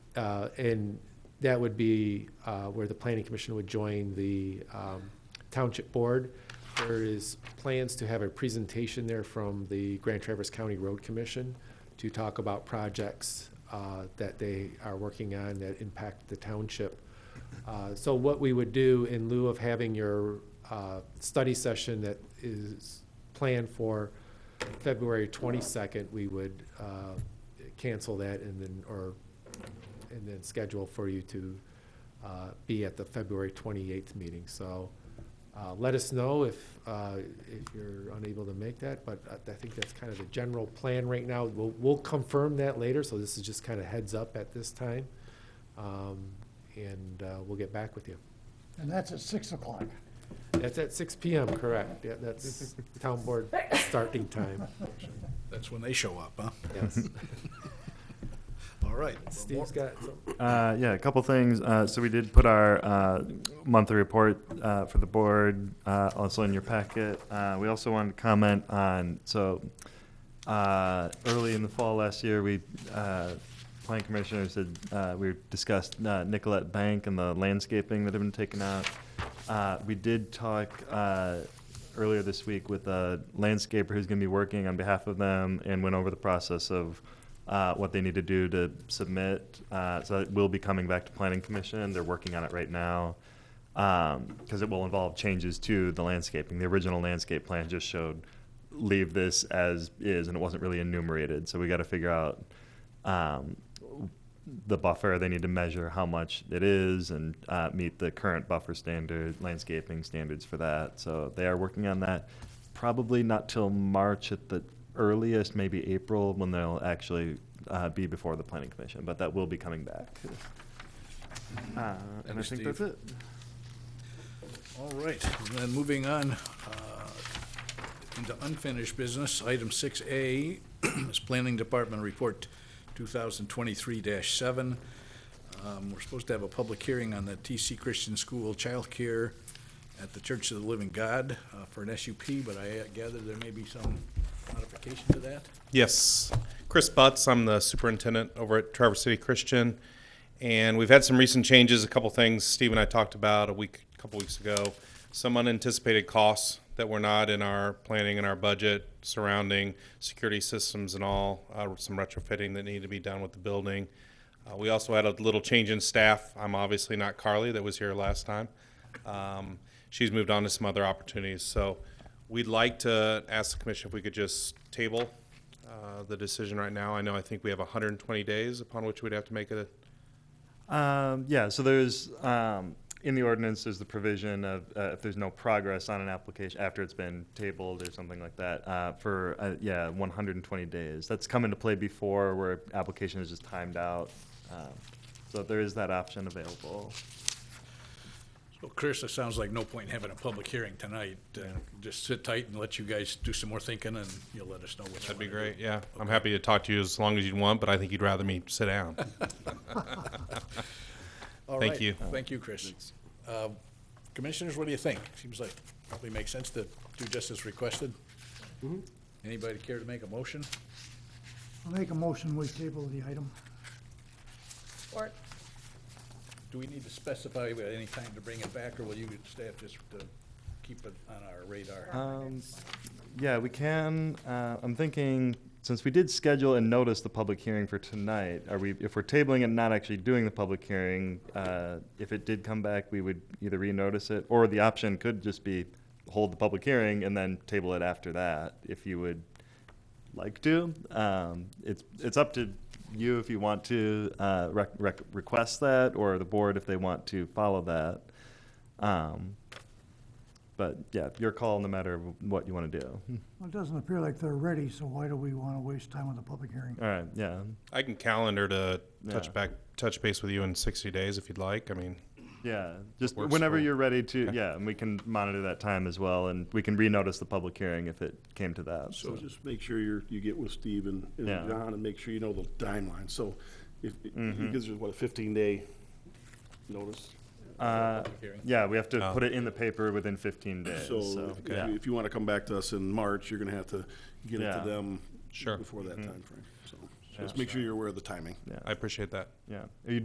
Uh, And that would be uh, where the planning commission would join the um, township board. There is plans to have a presentation there from the Grand Traverse County Road Commission to talk about projects uh, that they are working on that impact the township. Uh, So what we would do in lieu of having your uh, study session that is planned for February 22nd, we would uh, cancel that and then, or, and then schedule for you to uh, be at the February 28th meeting. So uh, let us know if, uh, if you're unable to make that, but I- I think that's kind of the general plan right now. We'll, we'll confirm that later, so this is just kind of heads up at this time. Um, And uh, we'll get back with you. And that's at 6 o'clock. That's at 6 PM, correct? Yeah, that's town board starting time, That's when they show up, huh? yes. All right. Steve's got some. Uh, yeah, a couple things. Uh, so we did put our uh, monthly report uh, for the board uh, also in your packet. Uh, we also wanted to comment on so uh, early in the fall last year, we uh, planning commissioners had uh, we discussed uh, Nicolette Bank and the landscaping that had been taken out. Uh, we did talk uh, earlier this week with a landscaper who's going to be working on behalf of them and went over the process of uh, what they need to do to submit. Uh, so it will be coming back to Planning Commission. They're working on it right now because Um, it will involve changes to the landscaping. The original landscape plan just showed leave this as is, and it wasn't really enumerated. So we got to figure out um, the buffer. They need to measure how much it is and uh, meet the current buffer standard, landscaping standards for that. So they are working on that. Probably not till March at the earliest, maybe April, when they'll actually uh, be before the planning commission. But that will be coming back. Uh, and I Thank think you, that's Steve. it. All right, and then moving on uh, into unfinished business, item 6A is Planning Department Report 2023-7. Um, We're supposed to have a public hearing on the TC Christian School childcare at the Church of the Living God uh, for an SUP, but I gather there may be some modification to that. Yes. Chris Butts, I'm the superintendent over at Traverse City Christian. And we've had some recent changes, a couple things Steve and I talked about a week, a couple weeks ago. Some unanticipated costs that were not in our planning and our budget surrounding security systems and all, uh, some retrofitting that needed to be done with the building. Uh, we also had a little change in staff. I'm obviously not Carly that was here last time. Um, she's moved on to some other opportunities. So we'd like to ask the commission if we could just table uh, the decision right now. I know, I think we have 120 days upon which we'd have to make a, Um, yeah, so there's, um, in the ordinance, there's the provision of, uh, if there's no progress on an application after it's been tabled or something like that, uh, for, uh, yeah, one hundred and twenty days. That's come into play before where application is just timed out. Um, So there is that option available. So Chris, it sounds like no point in having a public hearing tonight. Uh, Just sit tight and let you guys do some more thinking, and you'll let us know what you that'd be wanna do. great, yeah. I'm happy to talk to you as long as you'd want, but I think you'd rather me sit down. All Thank right. you. Thank you, Chris. Uh, Commissioners, what do you think? Seems like probably makes sense to do just as requested. Mm-hmm. Anybody care to make a motion? I'll make a motion, we table the item. Or, Do we need to specify at any time to bring it back, or will you staff just uh, keep it on our radar? Um, yeah, we can, uh, I'm thinking, since we did schedule and notice the public hearing for tonight, are we, if we're tabling and not actually doing the public hearing, uh, if it did come back, we would either renotice it, or the option could just be hold the public hearing and then table it after that, if you would like to. Um, it's, it's up to you if you want to, uh, rec- rec- request that, or the board if they want to follow that. Um, but yeah, your call no matter what you want to do. Hmm. Well, it doesn't appear like they're ready, so why do we want to waste time with a public hearing? All right, yeah. I can calendar to Yeah. touch back, touch base with you in 60 days if you'd like. I mean, Yeah, just Works whenever for- you're ready to, Okay. yeah, and we can monitor that time as well, and we can renotice the public hearing if it came to that. So So, just make sure you're, you get with Steve and, and Yeah. John and make sure you know the timeline. So if, Mm-hmm. it gives us what, a fifteen day notice? uh, hearing. yeah, we have to Oh. put it in the paper within 15 days. Uh, So, So if yeah. you- if you want to come back to us in March, you're going to have to get it Yeah. Mm-hmm. to them Sure. before that timeframe. So just make sure you're aware of the timing. I appreciate that. yeah. Are you